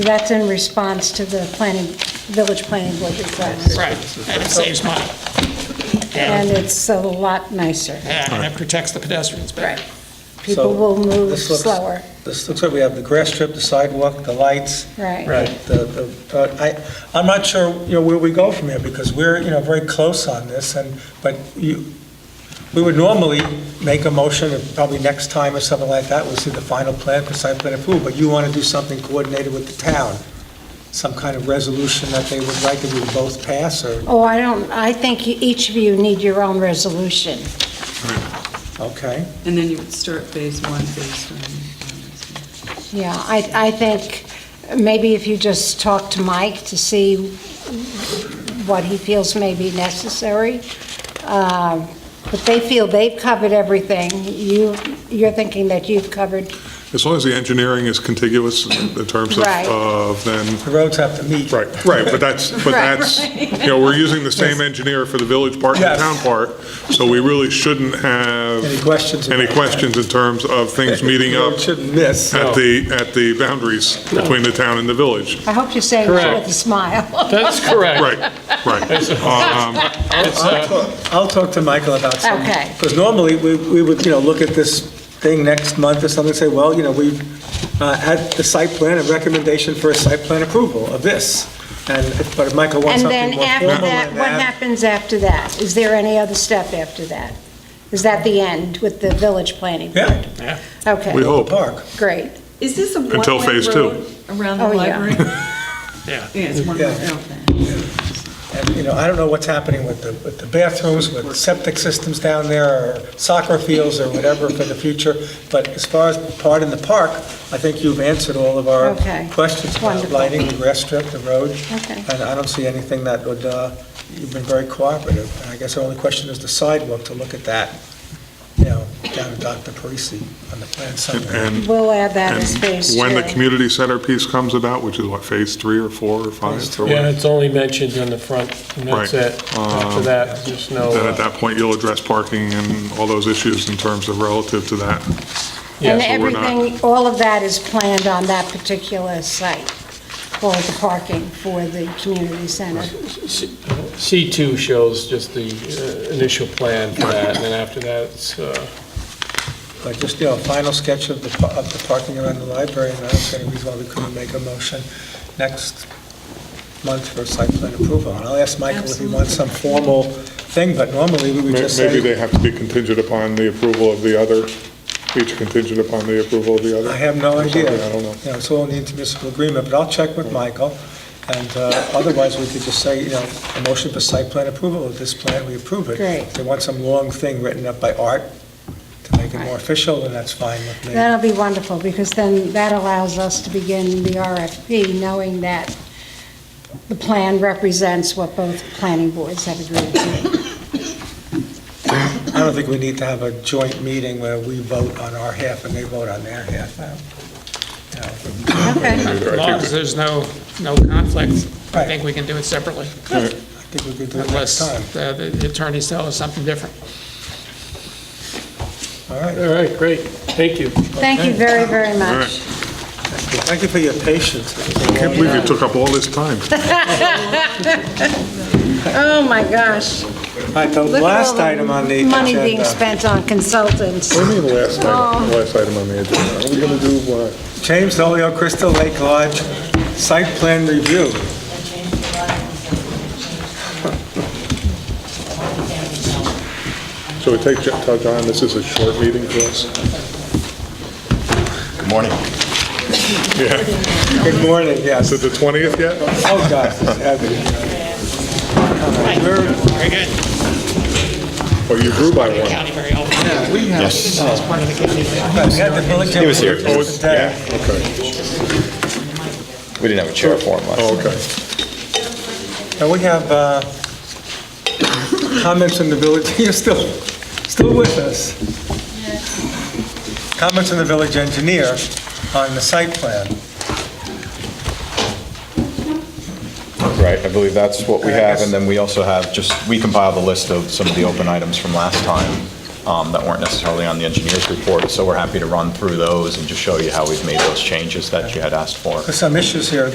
That's in response to the planning, village planning board request. Right, and it saves money. And And, it's a lot nicer. and it protects the pedestrians better. People So, will move this looks- slower, This looks like we have the grass strip, the sidewalk, the lights. right? The- the- uh, I, I'm not sure, you know, where we go from here, because we're, you know, very close on this, and, but you, we would normally make a motion, and probably next time or something like that, we'll see the final plan for site plan approval, but you want to do something coordinated with the town, some kind of resolution that they would like that we would both pass, or, Oh, I don't, I think you- each of you need your own resolution. okay? And then you would start phase one based on, Yeah, I, I think maybe if you just talk to Mike to see what he feels may be necessary. Um, But they feel they've covered everything. You, you're thinking that you've covered As long as the engineering is contiguous in terms of, Right. of then, The roads have to meet. right, right, but that's, but Right. that's, you know, we're using the same engineer for the village part and the Yes. town part, so we really shouldn't have Any questions? any about that? questions in terms of things meeting The road up Shouldn't miss. at the, at the boundaries between the town and the village. I hope you're saying that with Correct. a smile. That's correct. Right, right. Um, It's, I'll uh, talk- I'll talk to Michael about some. Okay. Because normally, we we would, you know, look at this thing next month or something, and say, well, you know, we've uh, had the site plan, a recommendation for a site plan approval of this. And, if- but if Michael And wants something then more after formal that, than what that. happens after that? Is there any other step after that? Is that the end with the village planning? Yeah, We Okay, hope. park. great. is this a one-way Until phase two. road Around the Oh, yeah. library? Yeah. Yeah, it's one-way, Yeah. okay. And, you know, I don't know what's happening with the, with the bathrooms, with septic systems down there, or soccer fields, or whatever for the future, but as far as part in the park, I think you've answered all of our Okay. questions about Wonderful. lighting, the grass strip, the road. Okay. And I don't see anything that would, uh, you've been very cooperative. And I guess the only question is the sidewalk, to look at that, you know, down to Dr. Parisi on the plan somewhere. And, We'll add that as phase and two. when the community center piece comes about, which is what, phase three or four or five? Phase or Yeah, what, it's only mentioned on the front, and that's Right. it. After Um, that, just no, Then at uh, that point, you'll address parking and all those issues in terms of relative to that. And yeah, so we're not- everything, all of that is planned on that particular site, all the parking for the community center. C2 shows just the uh, initial plan for that, and then after that, it's, uh, But just, you know, a final sketch of the, pa- of the parking around the library, and I don't see any reason why we couldn't make a motion next month for site plan approval. And I'll ask Michael if he wants some formal thing, but normally we would May- just Maybe say, they have to be contingent upon the approval of the other, each contingent upon the approval of the other. I have no Or something, idea. I don't know. You know, it's all in the intermunicipal agreement, but I'll check with Michael. And uh, otherwise, we could just say, you know, a motion for site plan approval of this plan, we approve it. Great. If they want some long thing written up by Art to make it more official, then that's fine with me. That'll be wonderful, because then that allows us to begin the RFP, knowing that the plan represents what both planning boards have agreed to. I don't think we need to have a joint meeting where we vote on our half and they vote on their half. I don't- you know, Okay. As long as there's no, no conflict, I Right. think we can do it separately, I think we could do it unless next time. uh, the attorneys tell us something different. All right. all right, great, thank you. Thank you very, very All much. right. Thank you for your patience. I can't believe it took up all this time. Oh, my gosh. All right, the Look at all last the item on the Money being agenda. spent on consultants. What do you mean last item, last item on the agenda? Are we going to do what? James Olio, Crystal Lake Lodge, site plan review. So we take, tell John this is a short meeting for us? Good morning. Yeah. Good morning, yes. Is it the 20th yet? Oh, gosh, it's heavy. Very good. Oh, you grew by one. County very helpful. Yes. That's part of the county. We had the village... He was here. Oh, it's- yeah, okay. We didn't have a chair for him last Oh, okay. And we have uh, comments in the village, you're still, still with us. Comments in the village engineer on the site plan. Right, I believe that's what we have, and then we also have, just, we compiled a list of some of the open items from last time um, that weren't necessarily on the engineer's report, so we're happy to run through those and just show you how we've made those changes that you had asked for. There's some issues here